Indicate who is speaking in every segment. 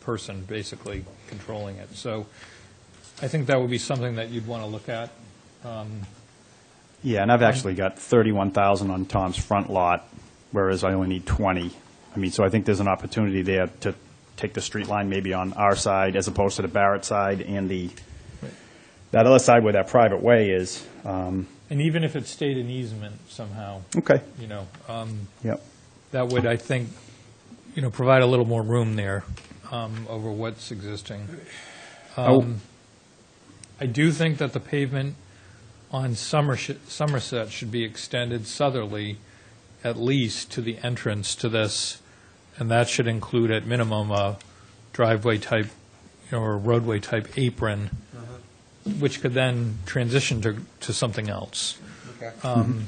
Speaker 1: person basically controlling it. So I think that would be something that you'd want to look at.
Speaker 2: Yeah, and I've actually got 31,000 on Tom's front lot, whereas I only need 20. I mean, so I think there's an opportunity there to take the street line maybe on our side as opposed to the Barrett side and the, that other side where that private way is. Um,
Speaker 1: And even if it stayed an easement somehow,
Speaker 2: Okay,
Speaker 1: you know, um,
Speaker 2: yep.
Speaker 1: that would, I think, you know, provide a little more room there um, over what's existing. Um,
Speaker 2: Oh,
Speaker 1: I do think that the pavement on Somerset Somerset should be extended southerly at least to the entrance to this, and that should include at minimum a driveway-type, you know, or roadway-type apron, which could then transition to, to something else.
Speaker 3: Okay.
Speaker 1: Um,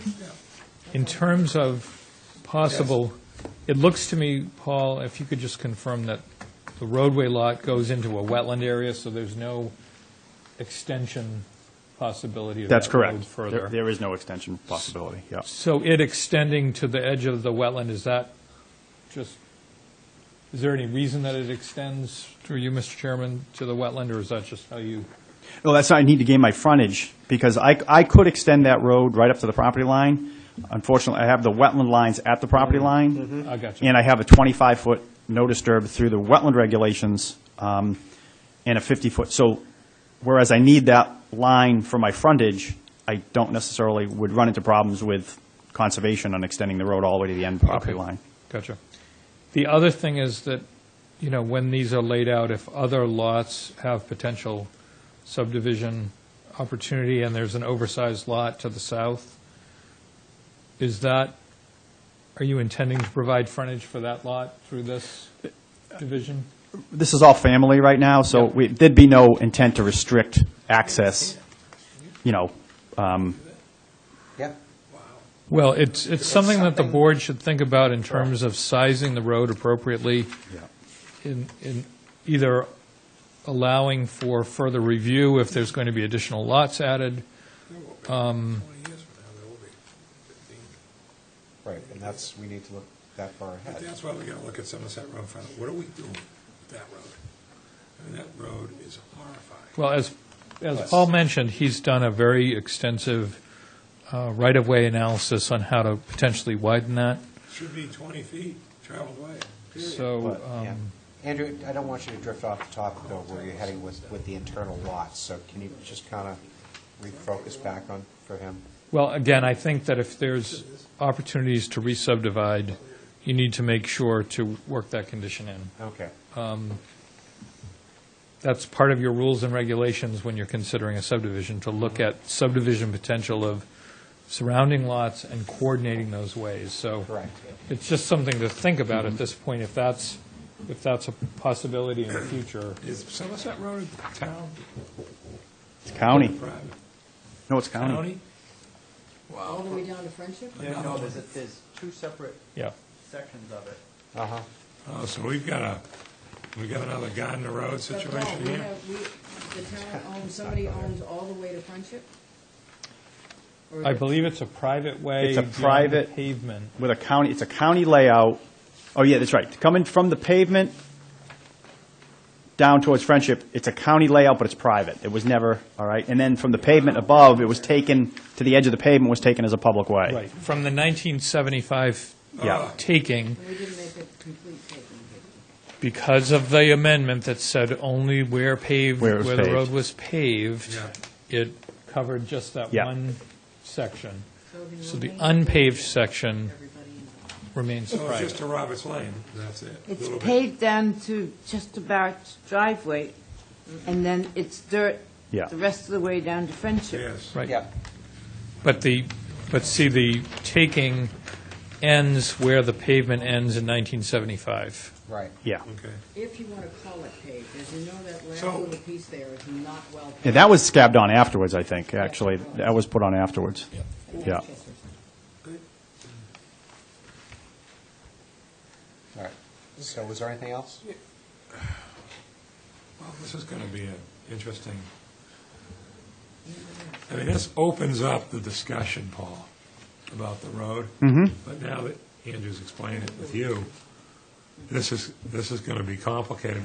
Speaker 1: In terms of possible, it looks to me, Paul, if you could just confirm that the roadway lot goes into a wetland area, so there's no extension possibility of
Speaker 2: That's
Speaker 1: that road
Speaker 2: correct. There-
Speaker 1: further.
Speaker 2: There is no extension possibility, yeah.
Speaker 1: So it extending to the edge of the wetland, is that just, is there any reason that it extends through you, Mr. Chairman, to the wetland, or is that just how you?
Speaker 2: No, that's, I need to gain my frontage, because I, I could extend that road right up to the property line. Unfortunately, I have the wetland lines at the property
Speaker 1: Mm-hmm.
Speaker 2: line.
Speaker 1: I got you.
Speaker 2: And I have a 25-foot no disturb through the wetland regulations um, and a 50-foot. So whereas I need that line for my frontage, I don't necessarily would run into problems with conservation on extending the road all the way to the end property
Speaker 1: Okay.
Speaker 2: line.
Speaker 1: Gotcha. The other thing is that, you know, when these are laid out, if other lots have potential subdivision opportunity and there's an oversized lot to the south, is that, are you intending to provide frontage for that lot through this division?
Speaker 2: This is all family right now, so we- there'd be no intent to restrict access, you know,
Speaker 3: Yeah.
Speaker 1: Well, it's, it's something that the board should think about in terms of sizing the road appropriately in, in either allowing for further review if there's going to be additional lots added.
Speaker 3: Right, and that's, we need to look that far
Speaker 4: But
Speaker 3: ahead.
Speaker 4: that's why we gotta look at Somerset Road, and find out, what are we doing with that road? I mean, that road is horrifying.
Speaker 1: Well, as, as Paul mentioned, he's done a very extensive uh, right-of-way analysis on how to potentially widen that,
Speaker 4: Should be twenty feet traveled way, period.
Speaker 1: so.
Speaker 3: But,
Speaker 1: um,
Speaker 3: yeah. Andrew, I don't want you to drift off the topic though, where you're heading with, with the internal lots, so can you just kind of refocus back on, for him?
Speaker 1: Well, again, I think that if there's opportunities to re-subdivide, you need to make sure to work that condition in.
Speaker 3: Okay,
Speaker 1: That's part of your rules and regulations when you're considering a subdivision, to look at subdivision potential of surrounding lots and coordinating those ways. So
Speaker 3: correct.
Speaker 1: it's just something to think about
Speaker 2: Mm-hmm.
Speaker 1: at this point, if that's, if that's a possibility in the future.
Speaker 4: Is Somerset Road town
Speaker 2: it's county.
Speaker 4: or private?
Speaker 2: No, it's county.
Speaker 5: All the way down to Friendship?
Speaker 6: No, there's, a- there's two separate
Speaker 1: Yeah.
Speaker 6: sections of it.
Speaker 3: Uh-huh,
Speaker 4: Oh, so we've got a, we've got another Gardner Road
Speaker 5: But Paul,
Speaker 4: situation
Speaker 5: we
Speaker 4: here?
Speaker 5: have, we, the town owns, somebody owns all the way to Friendship? Or
Speaker 1: I
Speaker 5: is it-
Speaker 1: believe it's a private way.
Speaker 2: It's a
Speaker 1: beyond the
Speaker 2: private-
Speaker 1: Pavement.
Speaker 2: with a county, it's a county layout. Oh, yeah, that's right. Coming from the pavement down towards Friendship, it's a county layout, but it's private. It was never, all right? And then from the pavement above, it was taken, to the edge of the pavement was taken as a public way.
Speaker 1: Right, from the 1975
Speaker 2: Yeah.
Speaker 1: taking,
Speaker 5: We didn't make a complete taking.
Speaker 1: because of the amendment that said only where paved,
Speaker 2: Where it
Speaker 1: where
Speaker 2: was
Speaker 1: the
Speaker 2: paved.
Speaker 1: road was paved,
Speaker 4: Yeah.
Speaker 1: it covered just that
Speaker 2: Yeah.
Speaker 1: one section.
Speaker 5: did we
Speaker 1: So the
Speaker 5: make a
Speaker 1: unpaved
Speaker 5: taking?
Speaker 1: section
Speaker 5: Everybody in.
Speaker 1: remains
Speaker 4: So it's just
Speaker 1: private.
Speaker 4: to Roberts Lane, that's it.
Speaker 7: It's
Speaker 4: Little bit.
Speaker 7: paved down to just about driveway, and then it's dirt
Speaker 2: Yeah.
Speaker 7: the rest of the way down to Friendship.
Speaker 4: Yes.
Speaker 1: Right.
Speaker 3: yeah,
Speaker 1: But the, but see, the taking ends where the pavement ends in 1975.
Speaker 3: right.
Speaker 2: Yeah.
Speaker 4: Okay.
Speaker 5: If you want to call it paved, as you know, that last
Speaker 4: So-
Speaker 5: little piece there is not well paved.
Speaker 2: Yeah, that was scabbed on afterwards, I think, actually. That was put on afterwards. Yeah.
Speaker 3: All right. So was there anything else?
Speaker 4: Well, this is gonna be an interesting, I mean, this opens up the discussion, Paul, about the road. Mm-hmm. But now that Andrew's explained it with you, this is, this is gonna be complicated